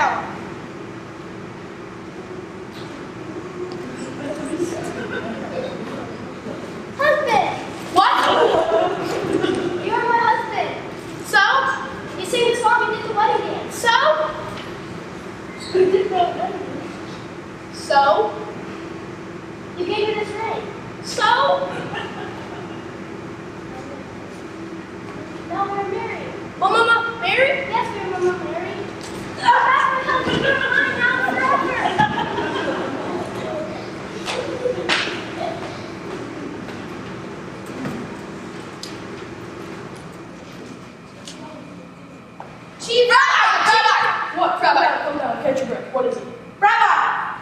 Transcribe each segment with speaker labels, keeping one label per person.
Speaker 1: Um,
Speaker 2: out.
Speaker 1: Husband!
Speaker 2: What?
Speaker 1: You are my husband!
Speaker 2: So?
Speaker 1: You sang this song and did the wedding dance.
Speaker 2: So? So?
Speaker 1: You gave me this ring.
Speaker 2: So?
Speaker 1: Now we're married.
Speaker 2: Oh, Mama, Mary?
Speaker 1: Yes, we are married.
Speaker 2: She, Rabbi! Rabbi! What? Rabbi? Calm down, catch your breath. What is it? Rabbi!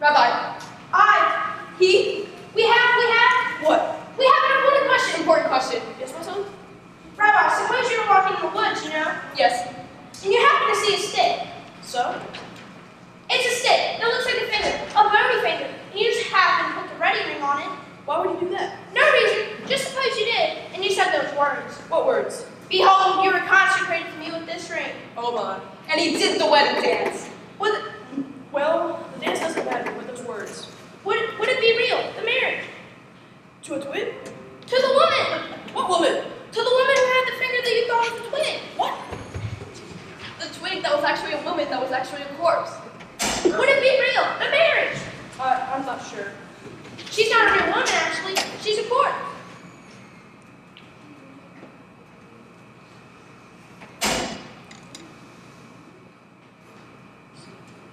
Speaker 2: Rabbi, I, he,
Speaker 1: We have, we have,
Speaker 2: what?
Speaker 1: we have an important question.
Speaker 2: Important question. Yes, my son?
Speaker 1: Rabbi, suppose you're walking in the woods, you know,
Speaker 2: Yes.
Speaker 1: and you happen to see a stick.
Speaker 2: So?
Speaker 1: It's a stick. It looks like a finger, a bony finger. And you just happen to put the ready ring on it.
Speaker 2: Why would you do that?
Speaker 1: No reason. Just suppose you did, and you said those words.
Speaker 2: What words?
Speaker 1: Behold, you were consecrated to me with this ring.
Speaker 2: Hold on. And he did the wedding dance. What? The, well, the dance doesn't matter with those words.
Speaker 1: Would it, would it be real? The marriage
Speaker 2: To a twin?
Speaker 1: to the woman,
Speaker 2: What woman?
Speaker 1: to the woman who had the finger that you thought was a twin.
Speaker 2: What?
Speaker 1: The twin that was actually a woman that was actually a corpse. Would it be real? The marriage.
Speaker 2: I, I'm not sure.
Speaker 1: She's not a real woman, actually. She's a corpse.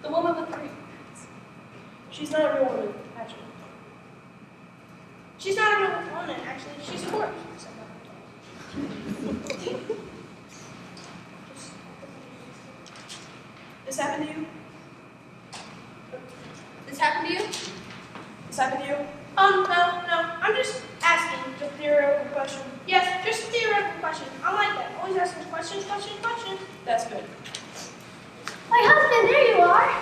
Speaker 2: The woman with the ring. She's not a real woman, actually.
Speaker 1: She's not a real woman, actually. She's a corpse.
Speaker 2: This happened to you?
Speaker 1: This happened to you?
Speaker 2: This happened to you?
Speaker 1: Um, no, no. I'm just asking.
Speaker 2: It's a theoretical question.
Speaker 1: Yes, just a theoretical question. I like that. Always asking questions, questions, questions.
Speaker 2: That's good.
Speaker 1: My husband, there you are.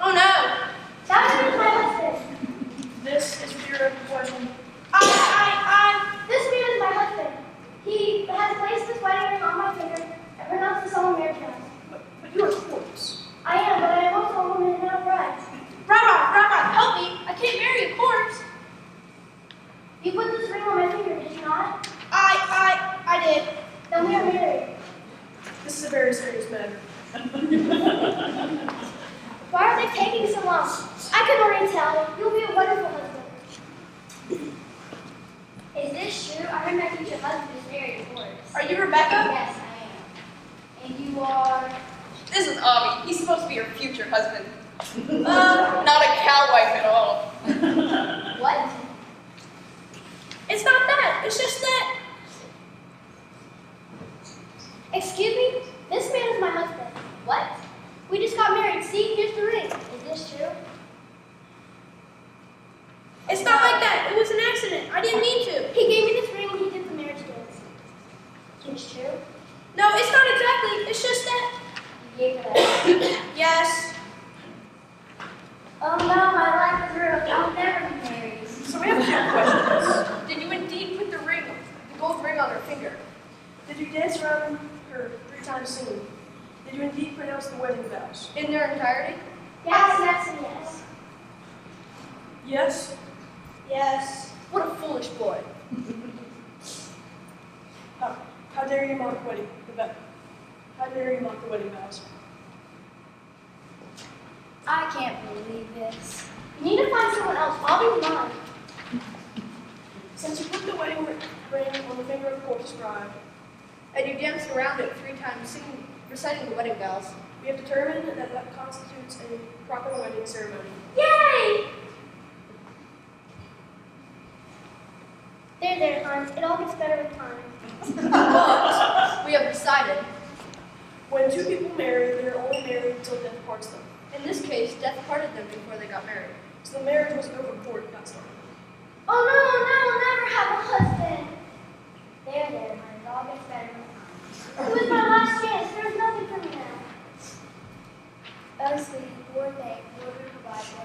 Speaker 2: Oh no!
Speaker 1: That is my husband.
Speaker 2: This is a theoretical question.
Speaker 1: I, I,
Speaker 3: This man is my husband. He has placed his wedding ring on my finger and pronounced the solemn marriage vows.
Speaker 2: But, but you're a corpse.
Speaker 3: I am, but I am also a woman and not a bride.
Speaker 1: I, Rabbi, Rabbi, help me. I can't marry a corpse.
Speaker 3: You put this ring on my finger, did you not?
Speaker 1: I, I, I did.
Speaker 3: Then we are married.
Speaker 2: This is a very serious matter.
Speaker 3: Why are they taking so long? I can already tell. You'll be a wonderful husband. Is this true? I heard my future husband is married, of course.
Speaker 2: Are you Rebecca?
Speaker 3: Yes, I am. And you are.
Speaker 4: This is Avi. He's supposed to be your future husband. Uh, not a cow wife at all.
Speaker 3: What?
Speaker 1: It's not that. It's just that.
Speaker 3: Excuse me? This man is my husband. What?
Speaker 1: We just got married. See, here's the ring.
Speaker 3: Is this true?
Speaker 1: It's not like that. It was an accident. I didn't mean to.
Speaker 3: He gave me this ring when he did the marriage dance. It's true.
Speaker 1: No, it's not exactly. It's just that.
Speaker 3: You gave it up.
Speaker 1: Yes.
Speaker 3: oh no, my life is ruined. I'll never be married.
Speaker 2: So we have two questions.
Speaker 4: Did you indeed put the ring, the gold ring on her finger?
Speaker 2: Did you dance around her three times singing? Did you indeed pronounce the wedding vows?
Speaker 4: In their entirety?
Speaker 3: Yes, yes, and yes.
Speaker 2: Yes.
Speaker 1: Yes.
Speaker 4: What a foolish boy.
Speaker 2: How, how dare you mock the wedding? The vow- How dare you mock the wedding vows?
Speaker 3: I can't believe this. You need to find someone else. I'll be mine.
Speaker 2: Since you put the wedding ri- ring on the finger of corpse bride,
Speaker 4: And you danced around it three times, singing, reciting the wedding vows.
Speaker 2: we have determined that that constitutes a proper wedding ceremony.
Speaker 3: Yay! There, there, Hans. It all gets better with time.
Speaker 4: But we have decided,
Speaker 2: When two people marry, they are only married until death parts them.
Speaker 4: in this case, death parted them before they got married.
Speaker 2: So the marriage was over before it got started.
Speaker 3: Oh no, no, I'll never have a husband. There, there, Hans. It all gets better with time. It was my last chance. There's nothing for me now. Oh, sweetie, poor thing. Lord will provide